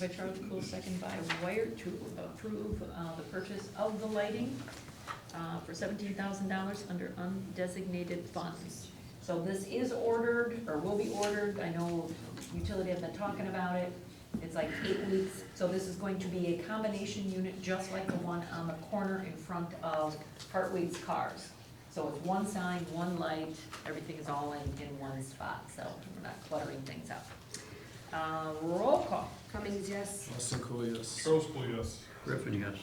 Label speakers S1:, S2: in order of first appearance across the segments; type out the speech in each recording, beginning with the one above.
S1: By Tropical, second by Wired, to approve uh, the purchase of the lighting uh, for seventeen thousand dollars under undesignated funds. So this is ordered, or will be ordered, I know utility have been talking about it, it's like eight weeks. So this is going to be a combination unit, just like the one on the corner in front of Hartwig's Cars. So it's one sign, one light, everything is all in, in one spot, so we're not cluttering things up. Uh, Roll call.
S2: Cummings, yes.
S3: Austin Cool, yes.
S4: Roll yes.
S5: Griffin, yes.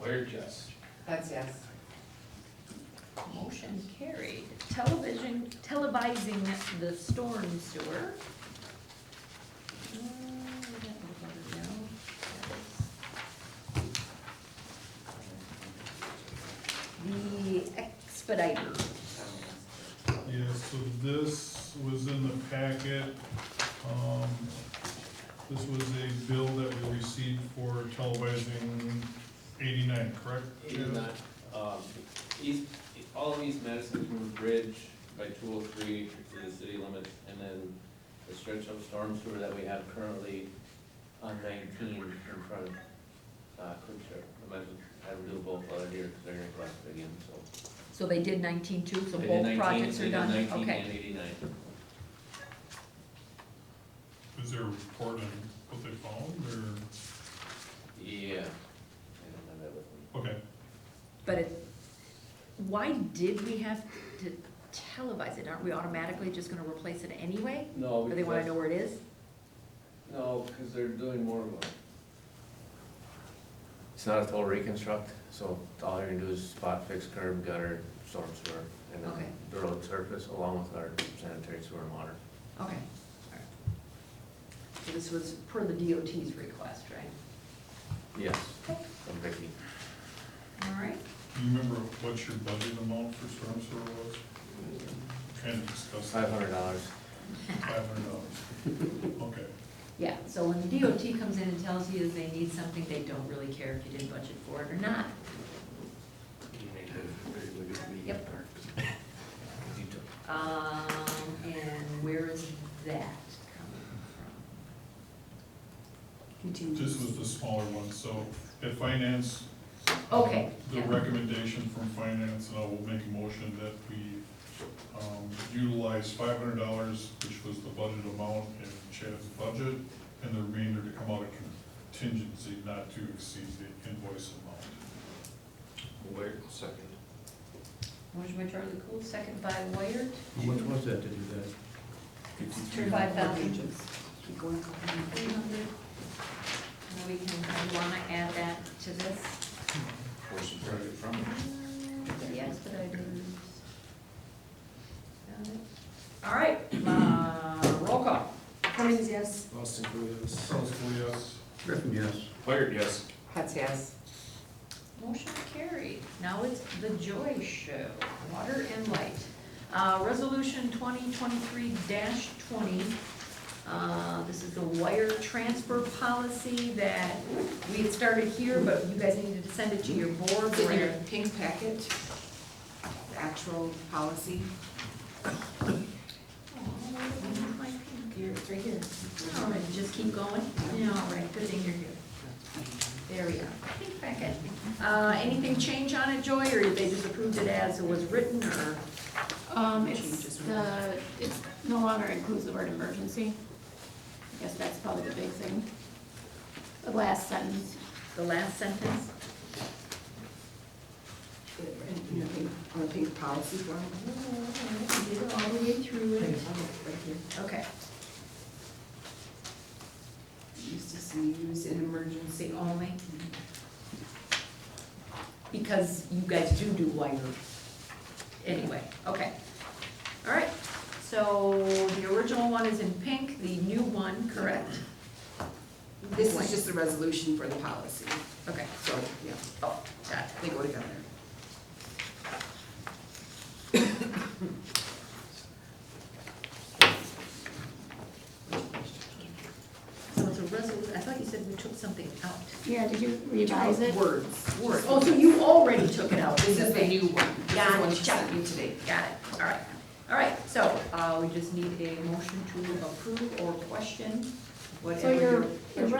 S4: Wired, yes.
S2: That's yes.
S1: Motion carried. Television, televising the storm sewer. Uh, we got the letter down. The expediter.
S4: Yeah, so this was in the packet. Um, This was a bill that we received for televising eighty-nine, correct? Jim?
S6: Even that, um, East, all of East Madison from the bridge by two oh three to the city limits, and then the stretch of storm sewer that we have currently on nineteen in front of, uh, Quickshire. I might as well have to do both other here, because they're gonna collect it again, so.
S1: So they did nineteen-two, so
S6: They did
S1: both
S6: 19,
S1: projects
S6: they
S1: are
S6: did
S1: done, okay.
S6: Nineteen and eighty-nine.
S4: Was there a report on what they found,
S6: Yeah, I don't have that with me.
S4: or, okay,
S1: But it, why did we have to televise it? Aren't we automatically just gonna replace it anyway?
S6: No,
S1: Or they wanna know
S6: because,
S1: where it is?
S6: no, because they're doing more of a. It's not a total reconstruct, so all you're gonna do is spot fix curb, gutter, storm sewer, and then
S1: Okay.
S6: the road surface along with our sanitary sewer and water.
S1: Okay. So This was per the DOT's request, right?
S6: Yes,
S1: Okay.
S6: from Vicky.
S1: All right.
S4: do you remember what your budget amount for storm sewer was? Trying to discuss
S6: Five
S4: that,
S6: hundred dollars.
S4: five hundred dollars. Okay,
S1: Yeah, so when the DOT comes in and tells you they need something, they don't really care if you did budget for it or not. Yep. Um, and where is that coming
S2: Continue.
S4: this was the smaller one, so at finance,
S1: from? Okay,
S4: The
S1: yeah,
S4: recommendation from finance, and I will make a motion that we um, utilize five hundred dollars, which was the budget amount in Chad's budget, and the remainder to come out of contingency not to exceed the invoice amount.
S3: Wait a second.
S1: motion by Charlie Cool, second by Wired,
S5: How much was that to do that?
S1: for five thousand.
S2: Keep going.
S1: Three hundred. Now we can, I wanna add that to this. The expediters. Got it. All right, uh, roll call.
S2: Cummings, yes.
S3: Austin Cool, yes.
S4: Trustee, yes?
S5: Griffin, yes.
S6: Wired, yes.
S2: That's yes.
S1: Motion carried. Now it's the Joy Show, Water and Light. Uh, Resolution 2023-20, uh, this is the wire transfer policy that we had started here, but you guys needed to send it to your board.
S2: It's in your pink packet, the actual policy.
S1: Oh, where's my pink?
S2: Here, it's right here.
S1: All right, just keep going. Yeah, all right, good thing you're here. There we are. Pink packet. Uh, anything change on it, Joy, or they just approved it as it was written, or?
S7: Um,
S2: Changes
S7: it's
S2: in
S7: the, it no longer includes the word emergency. I guess that's probably the big thing. The last sentence.
S1: The last sentence?
S2: In the pink, on the pink policy form.
S1: Oh, all the way through
S2: Right here.
S1: Okay,
S2: Used to see use in emergency only.
S1: because you guys do do wire. Anyway, okay. All right, so the original one is in pink, the new one, correct?
S2: This is just the resolution for the policy,
S1: Okay,
S2: so, yeah,
S1: oh, got it.
S2: they go together.
S1: So it's a resolution, I thought you said we took something out.
S7: Yeah, did you revise it?
S2: Words. Words.
S1: Oh, so you already took it out?
S2: This is the new one. This is the one she
S1: Gotcha.
S2: sent me today.
S1: Got it, all right. All right, so uh, we just need a motion to approve or question
S7: So
S2: whatever
S7: your,
S2: your.
S7: your